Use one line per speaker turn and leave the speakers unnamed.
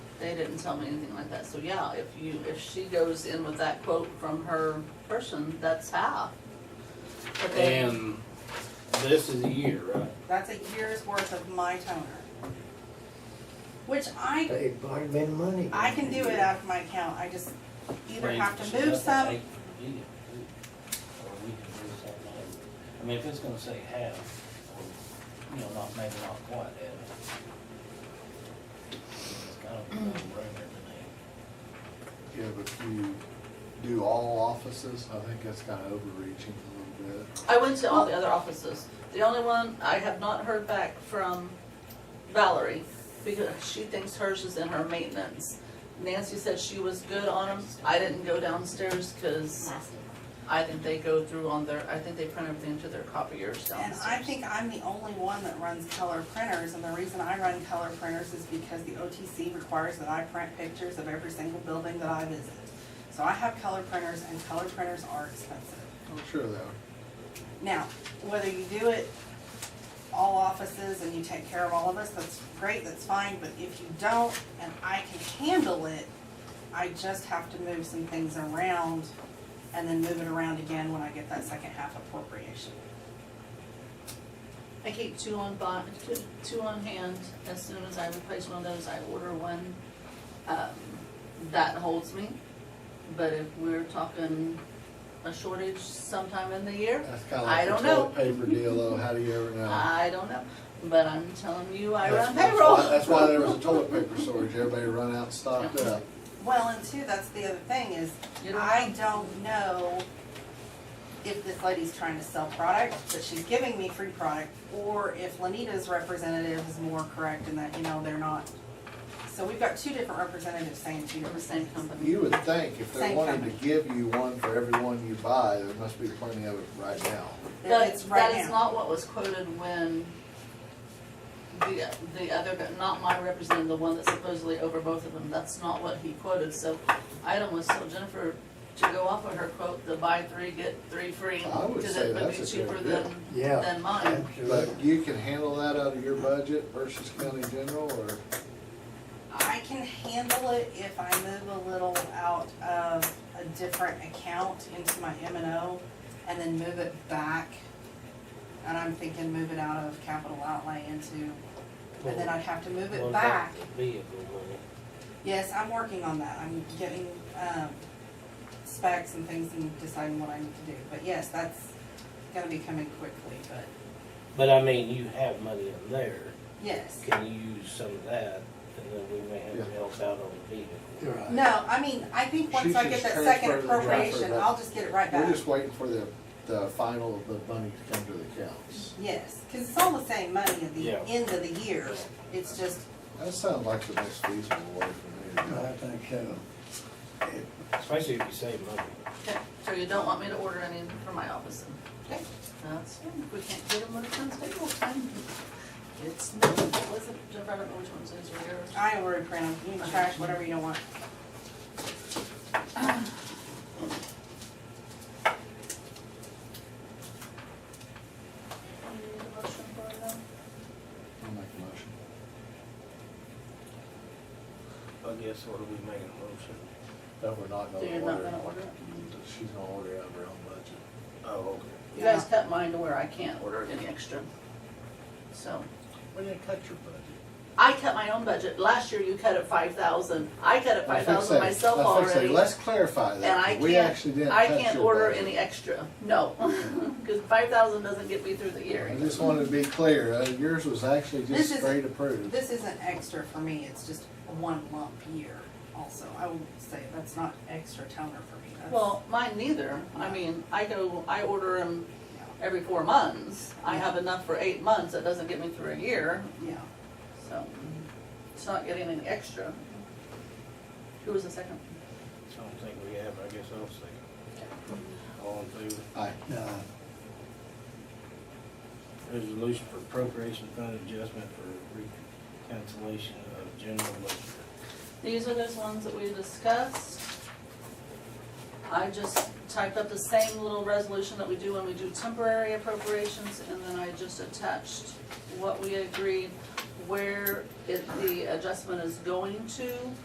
They didn't tell me anything like that, so yeah, if you, if she goes in with that quote from her person, that's half. But they-
And this is a year, right?
That's a year's worth of my toner. Which I,
They might have been money.
I can do it out of my account, I just either have to move some,
I mean, if it's gonna say half, or, you know, not, maybe not quite half. It's kind of a no-brainer to me.
Yeah, but if you do all offices, I think that's kind of overreaching a little bit.
I went to all the other offices. The only one, I have not heard back from Valerie, because she thinks hers is in her maintenance. Nancy said she was good on them. I didn't go downstairs, cause I think they go through on their, I think they print everything to their copiers
and I
downstairs.
think I'm the only one that runs color printers, and the reason I run color printers is because the OTC requires that I print pictures of every single building that I visit. So I have color printers, and color printers are expensive.
I'm sure that,
Now, whether you do it all offices and you take care of all of us, that's great, that's fine, but if you don't and I can handle it, I just have to move some things around and then move it around again when I get that second half appropriation.
I keep two on bond, two, two on hand. As soon as I replace one of those, I order one. Um, that holds me. But if we're talking a shortage sometime in the year,
that's kind of
I
like the
don't know.
toilet paper deal, though, how do you ever know?
I don't know, but I'm telling you, I
That's-
run
that's
payroll.
why- That's why there was a toilet paper shortage, everybody run out and stocked up.
Well, and two, that's the other thing is,
You don't-
I don't know if this lady's trying to sell product, that she's giving me free product, or if Lenita's representative is more correct in that, you know, they're not. So we've got two different representatives saying two
We're the
different
same
things.
company.
You would think if they
Same
wanted to
company.
give you one for every one you buy, there must be plenty of it right now.
That
That,
It's
that
right
is
now.
not what was quoted when the, the other, guy- not my representative, the one that's supposedly over both of them, that's not what he quoted, so I almost told Jennifer to go off of her quote, the buy three, get three free.
I would
because
say
it would be
that's a
cheaper
good
than,
Yeah.
than mine.
Absolutely.
But you can handle that out of your budget versus county general, or
I can handle it if I move a little out of a different account into my M and O and then move it back. And I'm thinking move it out of capital outlay into, and then I'd have to move
What
it
about
back.
the Vehicle money.
Yes, I'm working on that. I'm getting, um, specs and things and deciding what I need to do. But yes, that's gonna be coming quickly, but
But I mean, you have money in there,
yes.
can you use some of that, and then we may have to help out on the vehicle?
Right.
No, I mean, I think once
She
I
should
get that
transfer
second
the transfer
appropriation,
back.
I'll just get it right
we're
back.
just waiting for the, the final of the money to come to the counts.
Yes, cause it's all the same money at the
Yeah.
end of the year. It's just,
That sounds like the most feasible way for me to do
I
it.
think so.
Especially if you save money.
Okay, So you don't want me to order any for my office then?
Okay.
That's fine, if we can't get them when it comes table time. It's, no, what's the, Jennifer, I don't know which ones these are yours.
I already printed, you can trash whatever you don't want.
You need a motion for them?
I'll make a motion.
I guess what are we making a motion?
That we're not
So
gonna
you're not
order.
gonna order it?
She's gonna order out of her own budget.
Oh, okay.
You guys cut mine to where I can't order any extra. So,
We didn't cut your budget.
I cut my own budget. Last year you cut it five thousand. I cut it five thousand
I was
myself
gonna say,
already.
Let's clarify that.
And I
'cause we
can't-
actually didn't
I
cut
can't
your
order
budget.
any extra, no, cause five thousand doesn't get me through the year.
I just wanted to be clear, uh, yours was actually
This
just
is-
straight approved.
This isn't extra for me, it's just one lump year also. I will say, that's not extra toner for me. That's-
Well, mine neither. I mean, I go, I order them
yeah,
every four months. I have enough for eight months. That doesn't get me through a year,
Yeah.
so it's not getting any extra. Who was the second?
I don't think we have, I guess I'll second. All in favor?
Aye.
No,
Resolution for appropriation fund adjustment for reconciliation of general ledger.
These are those ones that we discussed. I just typed up the same little resolution that we do when we do temporary appropriations, and then I just attached what we agreed, where it, the adjustment is going to,